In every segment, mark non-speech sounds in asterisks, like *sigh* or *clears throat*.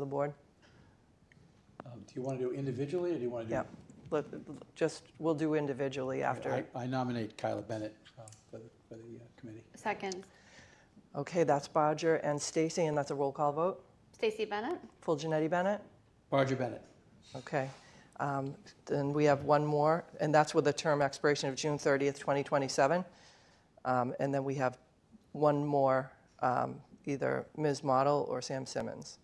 the board? Um, Do you want to do individually, or do you want to do? Yeah, Let- just, we'll do individually after. I- I nominate Kyla Bennett uh, for the for the, uh, committee. Second, Okay, that's Bodger and Stacy, and that's a roll call vote. Stacy Bennett. Full Janetti Bennett? Barger Bennett. Okay. Um, Then we have one more, and that's with a term expiration of June 30th, 2027. Um, And then we have one more, um, either Ms. Model or Sam Simmons.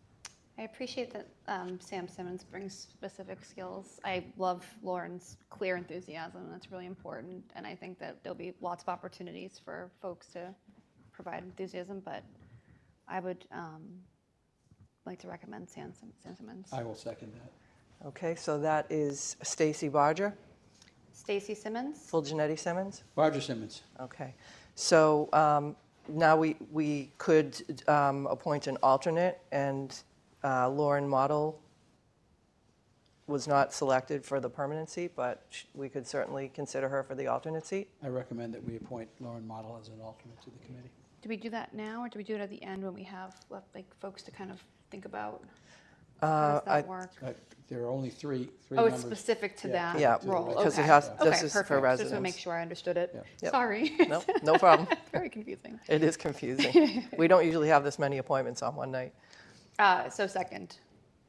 I appreciate that um, Sam Simmons brings specific skills. I love Lauren's clear enthusiasm. That's really important. And I think that there'll be lots of opportunities for folks to provide enthusiasm, but I would um, like to recommend Sam, Sim- Sam Simmons. Uh, I will second that. Okay, so that is Stacy Bodger, Stacy Simmons? Full Janetti Simmons? Barger Simmons. Okay, so um, now we, we could um, appoint an alternate, and uh, Lauren Model was not selected for the permanent seat, but sh- we could certainly consider her for the alternate seat. I recommend that we appoint Lauren Model as an alternate to the committee. Do we do that now or do we do it at the end when we have left, like folks to kind of think about? Uh, How does I- that work? Uh, There are only three, three Oh, it's members. specific to Yeah, that Yeah, role. because it Okay. has- okay, this is for perfect. Just to residents. make sure I understood it. Yeah. Yep. Sorry. No, no problem. *laughs* Very confusing. It is confusing. We don't usually have this many appointments on one night. Uh, so second,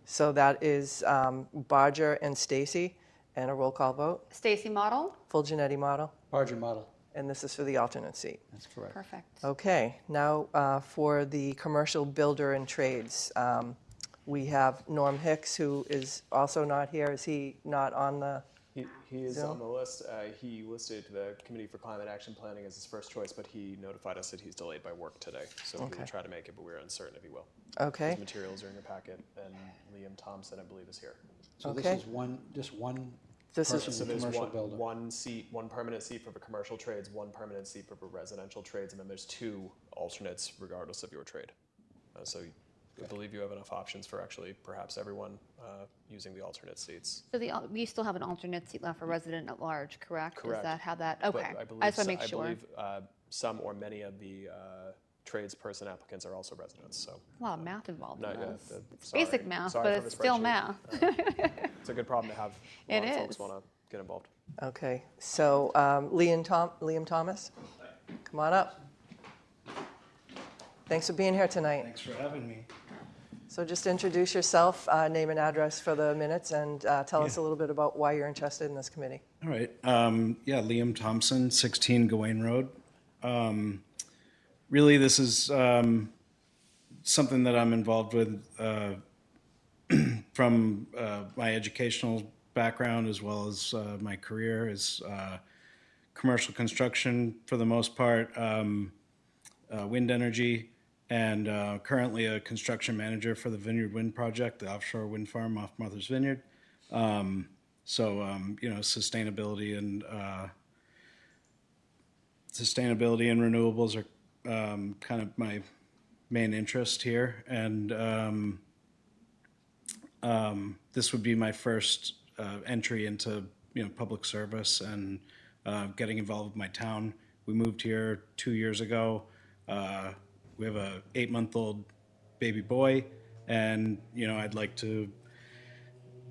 So that is um, Bodger and Stacy, and a roll call vote. Stacy Model. Full Janetti Model, Barger Model. and this is for the alternate seat. That's correct. Perfect. Oh. Okay, now uh, for the commercial builder and trades. um, We have Norm Hicks, who is also not here. Is he not on the, He, he is Zoom? on the list. Uh, he listed the Committee for Climate Action Planning as his first choice, but he notified us that he's delayed by work today. So we Okay. will try to make it, but we're uncertain if he will. okay, His materials are in your packet, and Liam Thompson, I believe, is here. So this Okay. is one, just one This is- person, So there's commercial one, builder. one seat, one permanent seat for the commercial trades, one permanent seat for the residential trades, and then there's two alternates regardless of your trade. Uh, so I believe you have enough options for actually perhaps everyone uh, using the alternate seats. So the, al- we still have an alternate seat left for resident at large, correct? Is Correct. that how that? Okay. But I just believe, want so- to make sure. I believe uh, some or many of the uh, tradesperson applicants are also residents, so. a lot of math involved No, in yeah, this. that- it's sorry. basic math, Sorry for but the it's still spreadsheet. math. It's a good problem to have. A It lot of folks is. want to get involved. okay. So um, Liam Tom, Liam Thomas, come on up. Thanks for being here tonight. Thanks for having me. So just introduce yourself, uh, name and address for the minutes, and uh, tell us a little bit about why you're interested in this committee. All right. Um, yeah, Liam Thompson, 16 Gawain Road. Um, really, this is um, something that I'm involved with uh, *clears throat* from uh, my educational background as well as uh, my career is uh, commercial construction for the most part, um, uh, wind energy, and uh, currently a construction manager for the Vineyard Wind Project, the offshore wind farm off Martha's Vineyard. So um, you know, sustainability and uh, sustainability and renewables are um, kind of my main interest here, and um, um, this would be my first uh, entry into you know public service and uh, getting involved with my town. We moved here two years ago. Uh, we have a eight-month-old baby boy, and you know I'd like to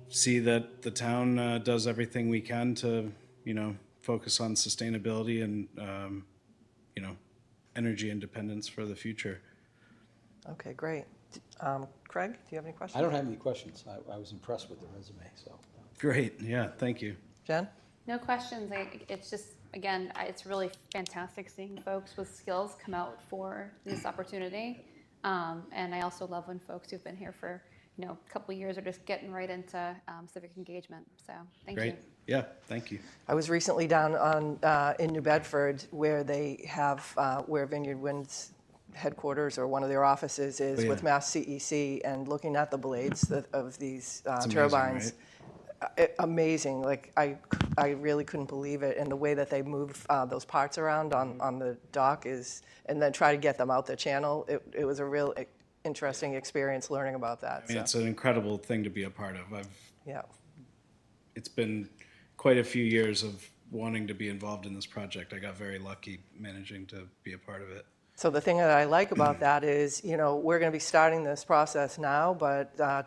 see that the town uh, does everything we can to, you know, focus on sustainability and, um, you know, energy independence for the future. Okay, great. Um, Craig, do you have any questions? I don't have any questions. I- I was impressed with the resume, so. Great. Yeah. Thank you. Jen? No questions. I, it's just, again, I, it's really fantastic seeing folks with skills come out for this opportunity. Um, and I also love when folks who've been here for, you know, a couple of years are just getting right into um, civic engagement. So thank Great. you. Yeah. Thank you. I was recently down on, uh, in New Bedford where they have, uh, where Vineyard Wind's headquarters or one of their offices is Oh, yeah. with Mass CEC and looking at the blades that, of these uh, amazing, turbines. uh, it- amazing. Like I, c- I really couldn't believe it. And the way that they move uh, those parts around on, Mm-hmm. on the dock is, and then try to get them out the channel. It, it was a real eh, interesting experience learning about that. I mean, so, it's an incredible thing to be a part of. I've, yeah. it's been quite a few years of wanting to be involved in this project. I got very lucky managing to be a part of it. So the thing that I like about that is, you know, we're going to be starting this process now, but uh,